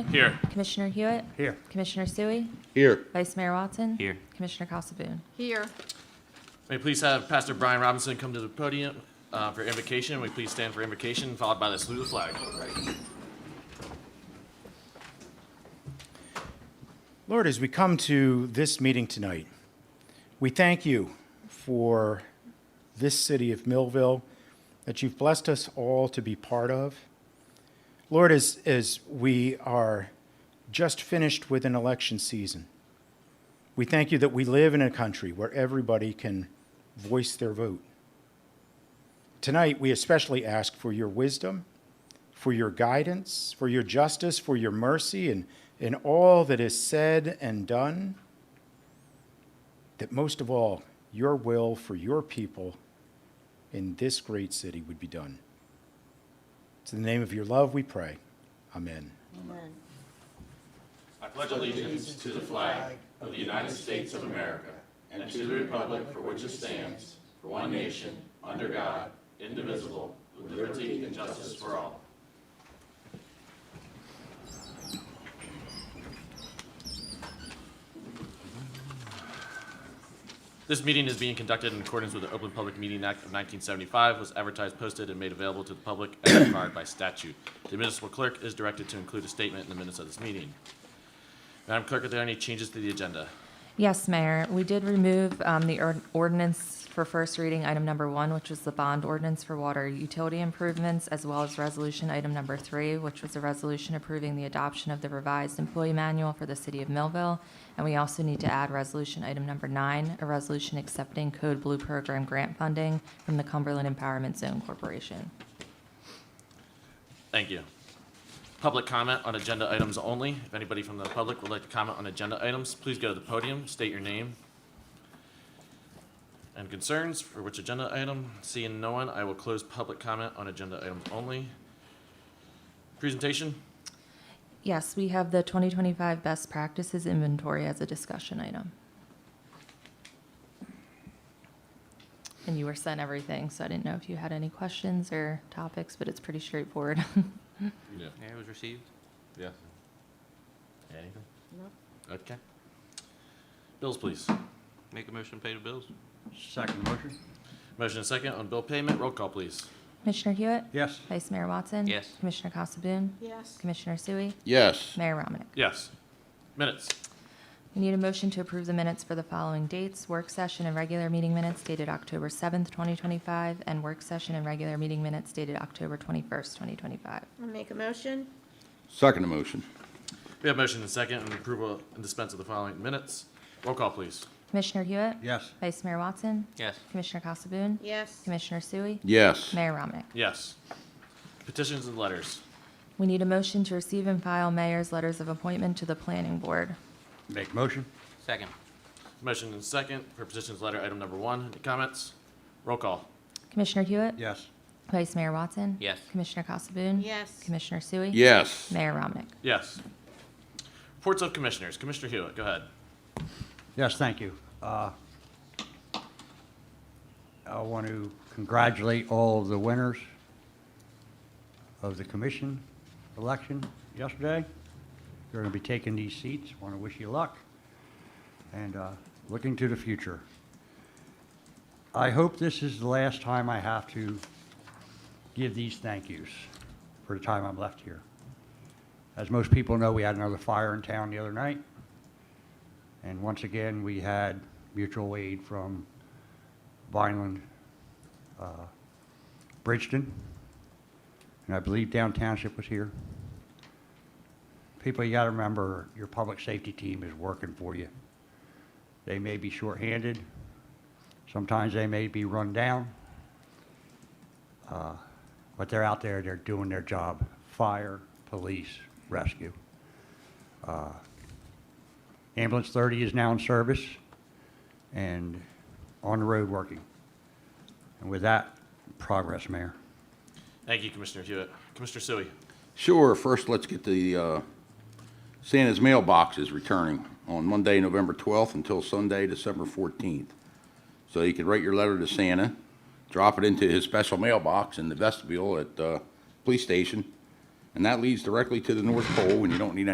Here. Commissioner Hewitt. Here. Commissioner Sui. Here. Vice Mayor Watson. Here. Commissioner Casabun. Here. May we please have Pastor Brian Robinson come to the podium uh, for invocation. May we please stand for invocation, followed by the salute of the flag. Lord, as we come to this meeting tonight, we thank you for this city of Millville that you've blessed us all to be part of. Lord, as, as we are just finished with an election season, we thank you that we live in a country where everybody can voice their vote. Tonight, we especially ask for your wisdom for your guidance, for your justice, for your mercy, and in all that is said and done. That most of all, your will for your people in this great city would be done. It's in the name of your love we pray. Amen. This meeting is being conducted in accordance with the Open Public Meeting Act of 1975, was advertised, posted, and made available to the public as required by statute. The municipal clerk is directed to include a statement in the minutes of this meeting. Madam Clerk, are there any changes to the agenda? Yes, Mayor, we did remove um, the ord- ordinance for first reading, item number one, which was the bond ordinance for water utility improvements, as well as resolution item number three, which was a resolution approving the adoption of the revised employee manual for the city of Millville. And we also need to add resolution item number nine, a resolution accepting Code Blue Program grant funding from the Cumberland Empowerment Zone Corporation. Thank you. Public comment on agenda items only. If anybody from the public would like to comment on agenda items, please go to the podium, state your name and concerns for which agenda item. Seeing no one, I will close public comment on agenda items only. Presentation? Yes, we have the 2025 Best Practices Inventory as a discussion item. And you were sent everything, so I didn't know if you had any questions or topics, but it's pretty straightforward. Yeah. Yeah, it was received. Yeah. Anything? No. Okay. Bills, please. Make a motion, pay the bills. Second motion? Motion and second on bill payment. Roll call, please. Commissioner Hewitt? Yes. Vice Mayor Watson? Yes. Commissioner Casabun? Yes. Commissioner Sui? Yes. Mayor Romanek? Yes. Minutes. We need a motion to approve the minutes for the following dates, work session and regular meeting minutes dated October 7th, 2025, and work session and regular meeting minutes dated October 21st, 2025. I Make a motion? Second motion. We have motion and second on approval and dispense of the following minutes. Roll call, please. Commissioner Hewitt? Yes. Vice Mayor Watson? Yes. Commissioner Casabun? Yes. Commissioner Sui? Yes. Mayor Romanek? Yes. Petitions and letters. We need a motion to receive and file mayor's letters of appointment to the planning board. Make motion? Second. Motion and second for petitions letter item number one. Any comments? Roll call. Commissioner Hewitt? Yes. Vice Mayor Watson? Yes. Commissioner Casabun? Yes. Commissioner Sui? Yes. Mayor Romanek? Yes. Reports of commissioners. Commissioner Hewitt, go ahead. Yes, thank you. Uh, I want to congratulate all of the winners of the commission election yesterday. You're going to be taking these seats. Want to wish you luck and uh, looking to the future. I hope this is the last time I have to give these thank yous for the time I'm left here. As most people know, we had another fire in town the other night. And once again, we had mutual aid from Vineland, uh, Bridgeton, and I believe Down Township was here. People, you gotta remember, your public safety team is working for you. They may be shorthanded, sometimes they may be run down, uh, but they're out there, they're doing their job. Fire, police, rescue. Ambulance 30 is now in service and on the road working. And with that, progress, Mayor. Thank you, Commissioner Hewitt. Commissioner Sui. Sure, first let's get the, uh, Santa's mailbox is returning on Monday, November 12th until Sunday, December 14th. So you can write your letter to Santa, drop it into his special mailbox in the vestibule at, uh, police station, And that leads directly to the North Pole, and you don't need any